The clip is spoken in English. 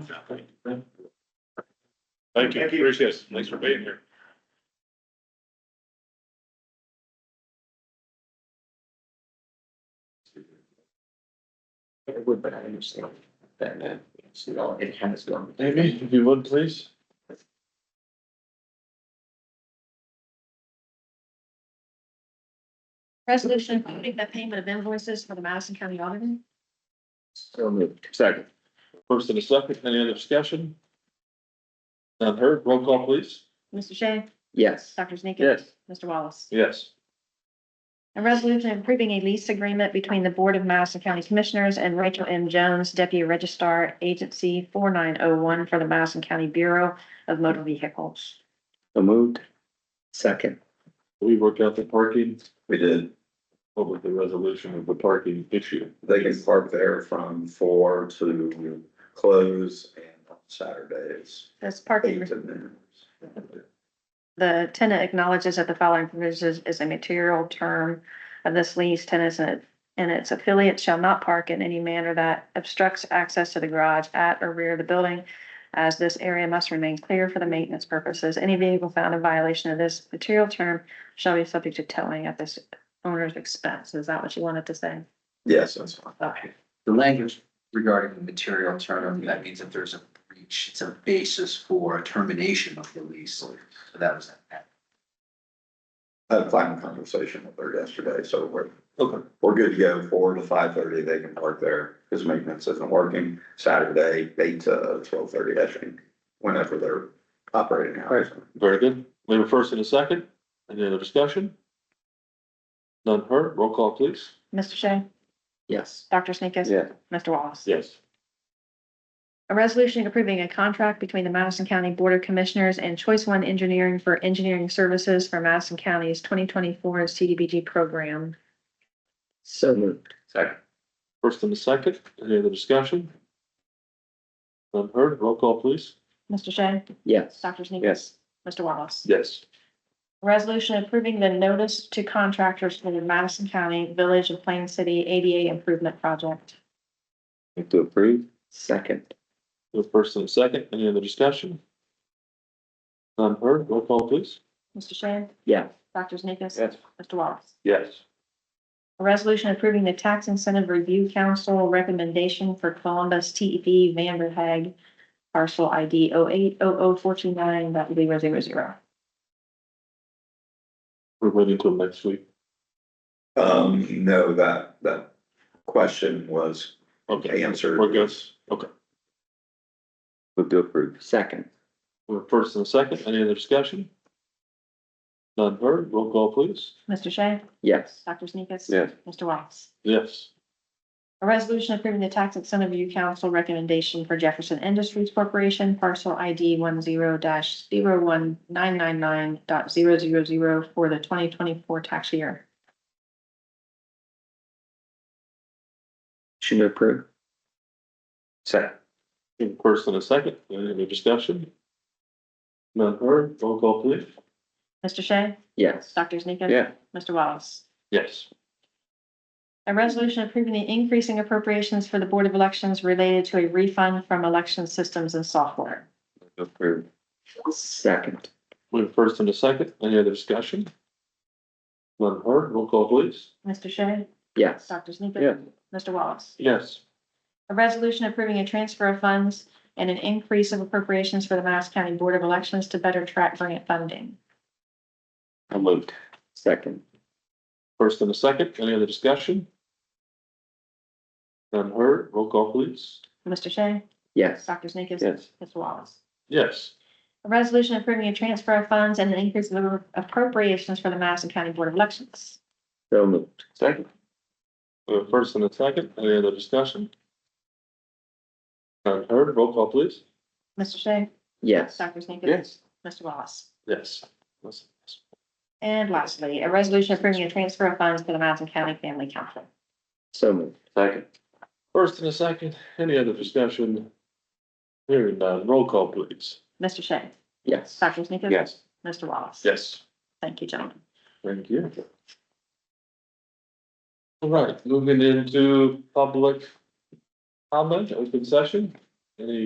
Thank you, Thank you. appreciate it. Thanks for being here. It would, but I understand that, uh, it's, you know, it has gone. Amy, if you would, please. Resolution approving the payment of invoices for the Madison County Auditor. So moved. Second. First and a second, any other discussion? None heard, roll call please. Mr. Shea, Yes. Dr. Sneakus. Mr. Wallace. Yes. A resolution approving a lease agreement between the Board of Madison County Commissioners and Rachel M. Jones, Deputy Registrar, Agency four nine oh one for the Madison County Bureau of Motor Vehicles. So moved. Second. We worked out the parking, We did, what was the resolution of the parking issue? they can park there from four to close and on Saturdays, This parking, eight to noon. the tenant acknowledges that the following provisions is a material term of this lease. Tenants and and its affiliates shall not park in any manner that obstructs access to the garage at or rear of the building, as this area must remain clear for the maintenance purposes. Any vehicle found in violation of this material term shall be subject to towing at this owner's expense. Is that what you wanted to say? Yes, that's fine. Okay. the language regarding the material term, that means if there's a breach, it's a basis for a termination of the lease. So that was that. I had a fine conversation with her yesterday, so we're, Okay. we're good to go, four to five thirty, they can park there, because maintenance isn't working, Saturday, eight to twelve thirty, I think, whenever they're operating hours. Very good. We have a first and a second, any other discussion? None heard, roll call please. Mr. Shea, Yes. Dr. Sneakus? Yeah. Mr. Wallace? Yes. A resolution approving a contract between the Madison County Board of Commissioners and Choice One Engineering for engineering services for Madison County's twenty twenty-four CDBG program. So moved. Second. First and a second, any other discussion? None heard, roll call please. Mr. Shea? Yes. Dr. Sneakus? Yes. Mr. Wallace? Yes. Resolution approving the notice to contractors for the Madison County Village of Plain City ADA Improvement Project. Move to approve. Second. The first and a second, any other discussion? None heard, roll call please. Mr. Shea? Yeah. Dr. Sneakus? Yes. Mr. Wallace? Yes. A resolution approving the Tax Incentive Review Council recommendation for Columbus E TEP Vanderhag parcel oh ID 0800429. that would be zero zero zero. We're waiting till next week. Um, no, that, that question was Okay, answered. we're good. Okay, Move to approve. Second. we're first and a second, any other discussion? None heard, roll call please. Mr. Shea? Yes. Dr. Sneakus? Yes. Mr. Wallace? Yes. A resolution approving the Tax Incentive Review Council recommendation for Jefferson Industries Corporation parcel ID one zero dash zero one nine nine nine dot zero zero zero for the twenty twenty-four tax year. Should approve. Second. In first and a second, any other discussion? None heard, roll call please. Mr. Shea? Yes. Dr. Sneakus? Yeah. Mr. Wallace? Yes. A resolution approving the increasing appropriations for the Board of Elections related to a refund from election systems and software. Move to approve. Second. We have first and a second, any other discussion? None heard, roll call please. Mr. Shea? Yes. Dr. Sneakus? Yeah. Mr. Wallace? Yes. A resolution approving a transfer of funds and an increase of appropriations for the Madison County Board of Elections to better track grant funding. I moved. Second. First and a second, any other discussion? None heard, roll call please. Mr. Shea? Yes. Dr. Sneakus? Yes. Mr. Wallace? Yes. A resolution approving a transfer of funds and an increase of appropriations for the Madison County Board of Elections. So moved. Second. We have a first and a second, any other discussion? None heard, roll call please. Mr. Shea? Yes. Dr. Sneakus? Mr. Wallace? Yes. And lastly, a resolution approving a transfer of funds to the Madison County Family Council. So moved. Second. First and a second, any other discussion? Hearing none, roll call please. Mr. Shea? Yes. Dr. Sneakus? Yes. Mr. Wallace? Yes. Thank you, gentlemen. Thank you. All right, moving into public comment, open session. Any